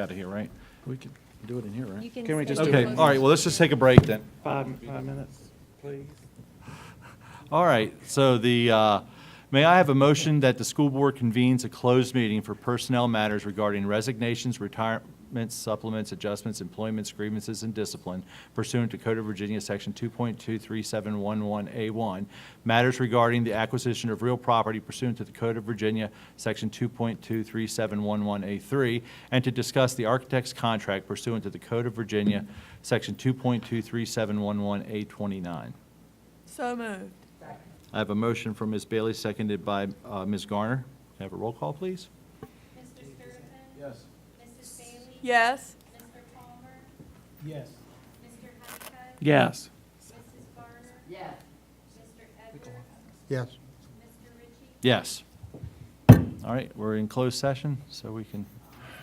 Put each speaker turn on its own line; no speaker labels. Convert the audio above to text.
out of here, right? We could do it in here,
You
right?
can.
Can we
stay
just do
Okay,
it.
all right, well, let's just take a break then.
Five, five minutes, please.
All right, so the, uh, may I have a motion that the school board convenes a closed meeting for personnel matters regarding resignations, retirements, supplements, adjustments, employments, grievances, and discipline pursuant to Code of Virginia, Section 2.23711A1, matters regarding the acquisition of real property pursuant to the Code of Virginia, Section 2.23711A3, and to discuss the architect's contract pursuant to the Code of Virginia, Section 2.23711A29.
So moved.
I have a motion from Ms. Bailey, seconded by uh, Ms. Garner. Can I have a roll call, please?
Mr. Sturman? Mrs. Bailey?
Yes.
Mr. Palmer?
Yes.
Mr. Honeycutt?
Yes.
Mrs. Garner? Yes. Mr. Edwards?
Yes.
Mr. Ritchie?
Yes. All right, we're in closed session, so we can